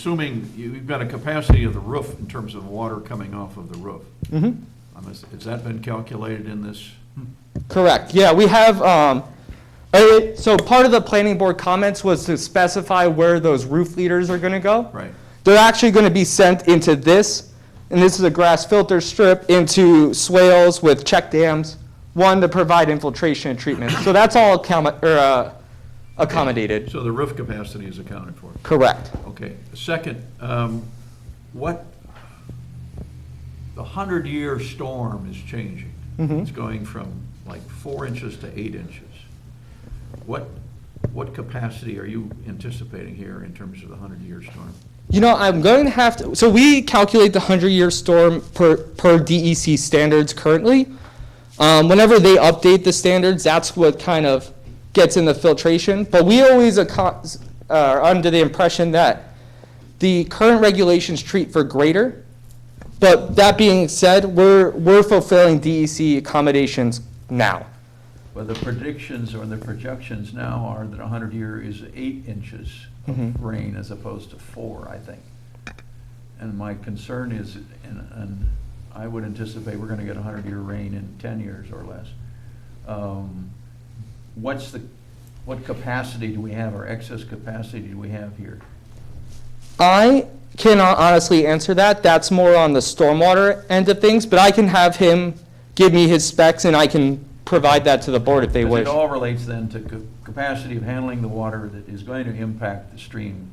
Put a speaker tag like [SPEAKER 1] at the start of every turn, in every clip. [SPEAKER 1] assuming you've got a capacity of the roof in terms of water coming off of the roof.
[SPEAKER 2] Mhm.
[SPEAKER 1] Um, Has has that been calculated in this?
[SPEAKER 2] Correct, yeah, we have, um, uh, so part of the planning board comments was to specify where those roof leaders are gonna go.
[SPEAKER 1] Right.
[SPEAKER 2] They're actually gonna be sent into this, and this is a grass filter strip, into swales with check dams, one to provide infiltration and treatment. So that's all accom- or, uh, accommodated,
[SPEAKER 1] So the roof capacity is accounted for.
[SPEAKER 2] correct.
[SPEAKER 1] Okay. Second, um, what, the hundred-year storm is changing. It's going from like four inches to eight inches. What, what capacity are you anticipating here in terms of the hundred-year storm?
[SPEAKER 2] You know, I'm going to have to, so we calculate the 100-year storm per, per DEC standards currently. Um, Whenever they update the standards, that's what kind of gets in the filtration. But we always acco- uh, are under the impression that the current regulations treat for greater. But that being said, we're, we're fulfilling DEC accommodations now.
[SPEAKER 1] Well, the predictions or the projections now are that 100 year is eight inches of rain as opposed to four, I think. And my concern is, and, and I would anticipate we're going to get 100 year rain in 10 years or less. Um, What's the, what capacity do we have, or excess capacity do we have here?
[SPEAKER 2] I cannot honestly answer that. That's more on the stormwater end of things, but I can have him give me his specs and I can provide that to the board if they
[SPEAKER 1] Because
[SPEAKER 2] wish.
[SPEAKER 1] It all relates then to ca- capacity of handling the water that is going to impact the stream,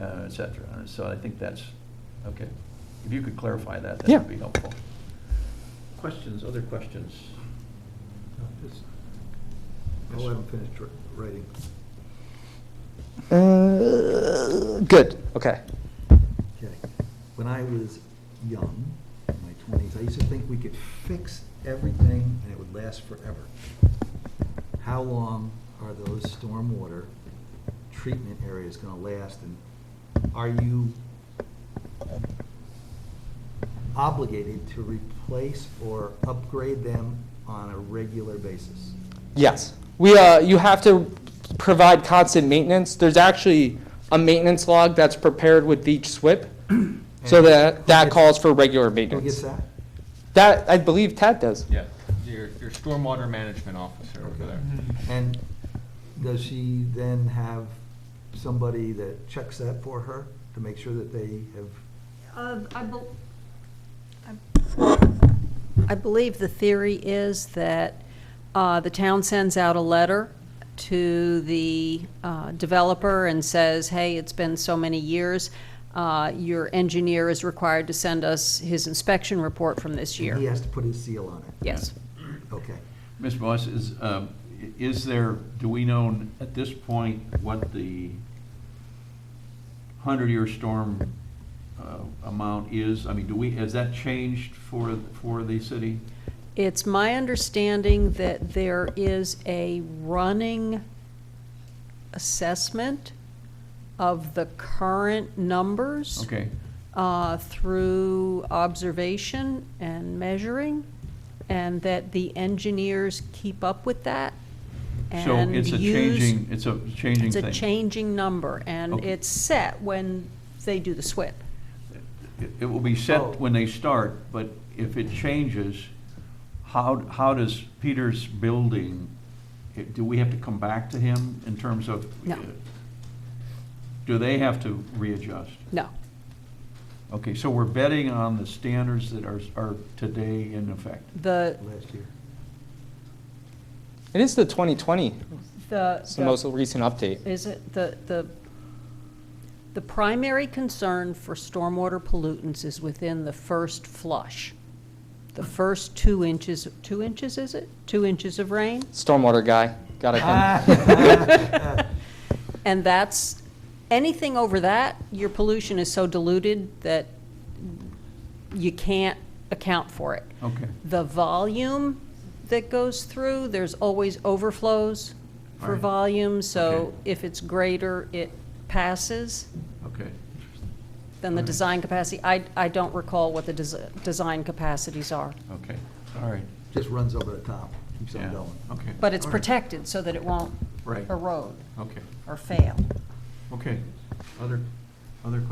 [SPEAKER 1] uh, et cetera. And So I think that's, okay. If you could clarify that, that
[SPEAKER 2] Yeah.
[SPEAKER 1] would be helpful. Questions, other questions?
[SPEAKER 3] No, just- I'll let him finish dr- writing.
[SPEAKER 2] Uh, Good, okay.
[SPEAKER 3] Okay. When I was young, in my twenties, I used to think we could fix everything and it would last forever. How long are those stormwater treatment areas gonna last? And are you obligated to replace or upgrade them on a regular basis?
[SPEAKER 2] Yes. We, uh, you have to provide constant maintenance. There's actually a maintenance log that's prepared with each SWIP. So
[SPEAKER 3] And
[SPEAKER 2] that,
[SPEAKER 3] who
[SPEAKER 2] that
[SPEAKER 3] gets-
[SPEAKER 2] calls for regular
[SPEAKER 3] Who gets
[SPEAKER 2] maintenance.
[SPEAKER 3] that?
[SPEAKER 2] That, I believe Ted does.
[SPEAKER 4] Yeah, your, your stormwater management officer over there.
[SPEAKER 3] And does she then have somebody that checks that for her to make sure that they have,
[SPEAKER 5] Uh, I bel- I- I believe the theory is that uh, the town sends out a letter to the uh, developer and says, hey, it's been so many years, uh, your engineer is required to send us his inspection report from this
[SPEAKER 3] he
[SPEAKER 5] year.
[SPEAKER 3] has to put his seal on it?
[SPEAKER 5] Yes.
[SPEAKER 3] Okay.
[SPEAKER 1] Ms. Moss, is, um, i- is there, do we know at this point what the 100-year storm uh, amount is? I mean, do we, has that changed for, for the city?
[SPEAKER 5] It's my understanding that there is a running assessment of the current numbers.
[SPEAKER 1] Okay.
[SPEAKER 5] uh, through observation and measuring, and that the engineers keep up with that.
[SPEAKER 1] So
[SPEAKER 5] and
[SPEAKER 1] it's a
[SPEAKER 5] use-
[SPEAKER 1] changing, it's a changing
[SPEAKER 5] It's
[SPEAKER 1] thing?
[SPEAKER 5] a changing number, and
[SPEAKER 1] Okay.
[SPEAKER 5] it's set when they do the SWIP.
[SPEAKER 1] It- It will be
[SPEAKER 3] Oh.
[SPEAKER 1] set when they start, but if it changes, how, how does Peter's building, eh, do we have to come back to him in terms of?
[SPEAKER 5] No.
[SPEAKER 1] eh, Do they have to readjust?
[SPEAKER 5] No,
[SPEAKER 1] Okay, so we're betting on the standards that are, are today in effect.
[SPEAKER 5] the,
[SPEAKER 3] Last year.
[SPEAKER 2] It is the 2020,
[SPEAKER 5] the.
[SPEAKER 2] it's the most recent update.
[SPEAKER 5] is it, the, the, the primary concern for stormwater pollutants is within the first flush. The first two inches, two inches, is it? Two inches of rain?
[SPEAKER 2] Stormwater guy, got it.
[SPEAKER 5] And that's, anything over that, your pollution is so diluted that you can't account for it.
[SPEAKER 1] Okay.
[SPEAKER 5] The volume that goes through, there's always overflows for
[SPEAKER 1] Right.
[SPEAKER 5] volume, so
[SPEAKER 1] Okay.
[SPEAKER 5] if it's greater, it passes
[SPEAKER 1] Okay.
[SPEAKER 5] than the design capacity. I, I don't recall what the desi- design capacities are,
[SPEAKER 1] Okay, all right.
[SPEAKER 3] Just runs over the top, keeps
[SPEAKER 1] Yeah,
[SPEAKER 3] on going.
[SPEAKER 1] Okay.
[SPEAKER 5] but it's
[SPEAKER 1] all right,
[SPEAKER 5] protected so that it won't
[SPEAKER 1] Right,
[SPEAKER 5] erode
[SPEAKER 1] okay,
[SPEAKER 5] or fail.
[SPEAKER 1] okay. Other, other questions?